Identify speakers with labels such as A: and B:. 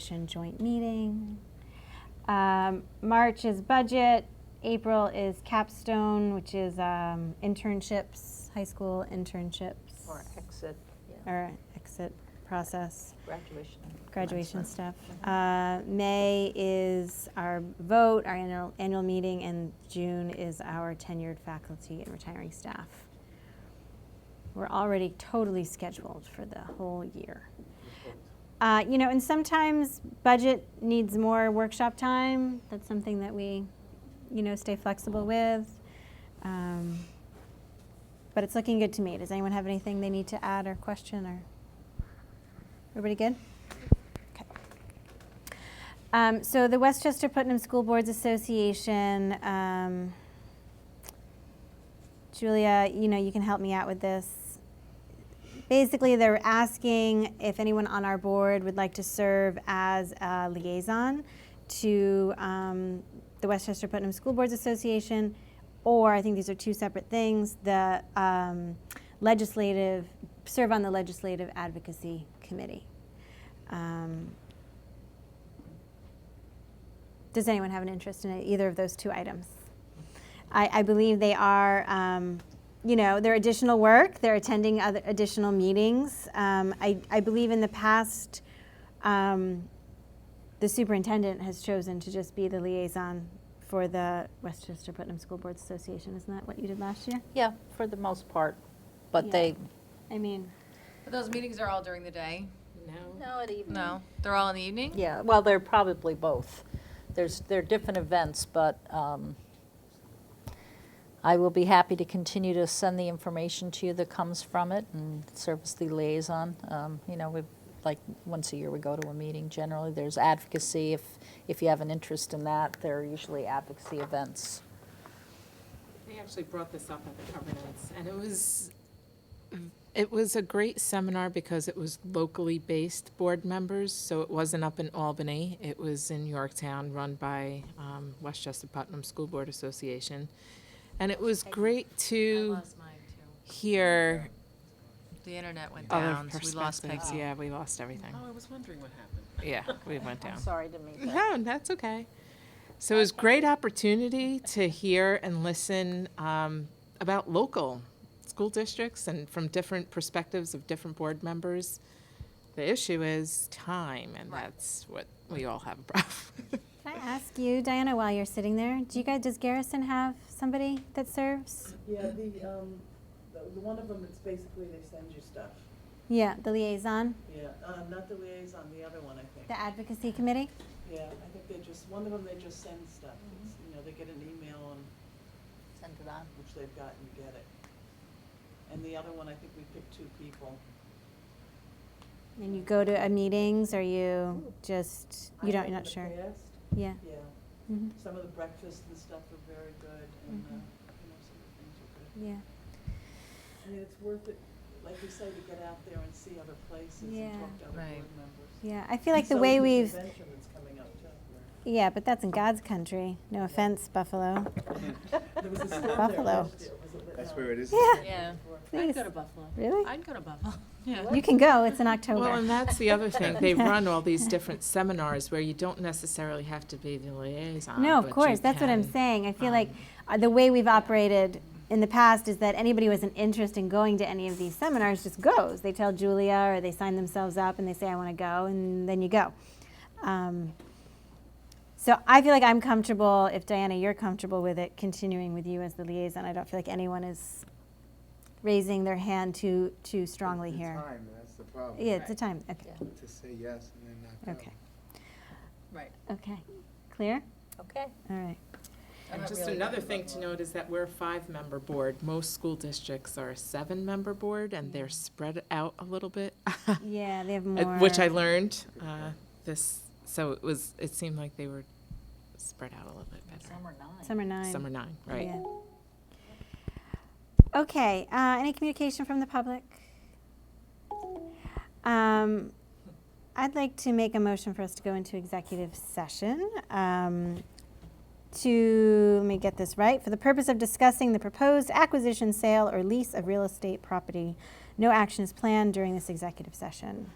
A: Commission joint meeting. Um, March is budget. April is capstone, which is um, internships, high school internships.
B: Or exit, yeah,
A: or exit process,
B: graduation.
A: graduation
B: commencement.
A: stuff. Uh, May is our vote, our annual, annual meeting, and June is our tenured faculty and retiring staff. We're already totally scheduled for the whole year. Uh, you know, and sometimes budget needs more workshop time. That's something that we, you know, stay flexible with. Um, but it's looking good to me. Does anyone have anything they need to add or question or? Everybody good? Okay. Um, so the Westchester Putnam School Boards Association, um, Julia, you know, you can help me out with this. Basically, they're asking if anyone on our board would like to serve as a liaison to um, the Westchester Putnam School Boards Association, or I think these are two separate things, the um, legislative, serve on the Legislative Advocacy Committee. Um, does anyone have an interest in either of those two items? I, I believe they are, um, you know, they're additional work. They're attending other additional meetings. Um, I, I believe in the past, um, the superintendent has chosen to just be the liaison for the Westchester Putnam School Boards Association. Isn't that what you did last year?
B: Yeah, for the most part,
A: Yeah.
B: but they,
A: I mean,
C: But those meetings are all during the day?
D: No, at evening.
C: No, they're all in the evening?
B: yeah, well, they're probably both. There's, they're different events, but um, I will be happy to continue to send the information to you that comes from it and serve as the liaison. Um, You know, we, like, once a year, we go to a meeting generally. There's advocacy, if, if you have an interest in that, there are usually advocacy events.
E: They actually brought this up at the governance, and it was, it was a great seminar because it was locally based board members, so it wasn't up in Albany. It was in Yorktown, run by um, Westchester Putnam School Board Association. And it was great to hear
C: The internet went
E: other
C: down, so we lost Peggy.
E: perspectives. Yeah, we lost everything.
F: Oh, I was wondering what happened.
E: Yeah, we went down.
B: I'm sorry to meet that.
E: No, that's okay. So it was great opportunity to hear and listen um, about local school districts and from different perspectives of different board members. The issue is time, and
C: Right.
E: that's what we all have a problem. with.
A: can I ask you, Diana, while you're sitting there, do you guys, does Garrison have somebody that serves?
G: Yeah, the, um, the, the one of them, it's basically they send you stuff.
A: Yeah, the liaison,
G: Yeah, uh, not the liaison, the other one, I think.
A: the advocacy committee?
G: Yeah, I think they just, one of them, they just send stuff. It's, You know, they get an email on
B: Send it on.
G: which they've got and you get it. And the other one, I think we picked two people.
A: And you go to uh, meetings, or you just, you
G: I
A: don't,
G: think
A: you're not
G: the
A: sure?
G: past,
A: Yeah.
G: Yeah,
A: Mhm.
G: some of the breakfasts and stuff are very good and, uh,
A: Mhm.
G: you know, some of the things are good.
A: Yeah.
G: I mean, it's worth it, like you say, to get out there and see other places
A: Yeah.
G: and talk to other
C: Right.
G: board members.
A: Yeah. I feel like the
G: So
A: way
G: is
A: we've,
G: Convention that's coming up too.
A: yeah, but that's in God's country. No offense, Buffalo.
G: There was a storm there
A: Buffalo.
G: last year, was it-
F: That's
G: no.
F: where it is.
A: Yeah.
C: Yeah.
A: Please.
B: Buffalo.
A: Really?
C: I'd go to Buffalo. Yeah.
A: You can go. It's in
E: Well, and
A: October.
E: that's the other thing. They run all these different seminars where you don't necessarily have to be the liaison.
A: No,
E: but
A: of
E: you
A: course. That's what I'm
E: can-
A: saying. I feel like
E: um,
A: uh, the way we've operated in the past is that anybody with an interest in going to any of these seminars just goes. They tell Julia or they sign themselves up and they say, I want to go, and then you go. Um, so I feel like I'm comfortable, if Diana, you're comfortable with it, continuing with you as the liaison. I don't feel like anyone is raising their hand too, too strongly
F: It's
A: here.
F: Time, that's the problem.
A: Yeah, it's a time. Okay.
F: To say yes and then not go.
A: Okay.
C: Right.
A: Okay. Clear?
B: Okay.
A: All right.
E: And
B: not
E: just
B: really
E: another
B: worried
E: thing
B: about
E: to note is that we're a five-member board. Most school districts are a seven-member board, and they're spread out a little bit.
A: Yeah, they have
E: Uh,
A: Mm. more.
E: Which I learned uh, this, so it was, it seemed like they were spread out a little bit better.
B: Some are nine.
A: Summer nine.
E: Some are nine, right?
A: Yeah. Okay, uh, any communication from the public? Um, I'd like to make a motion for us to go into executive session. um, to, let me get this right, for the purpose of discussing the proposed acquisition, sale, or lease of real estate property. No action is planned during this executive session.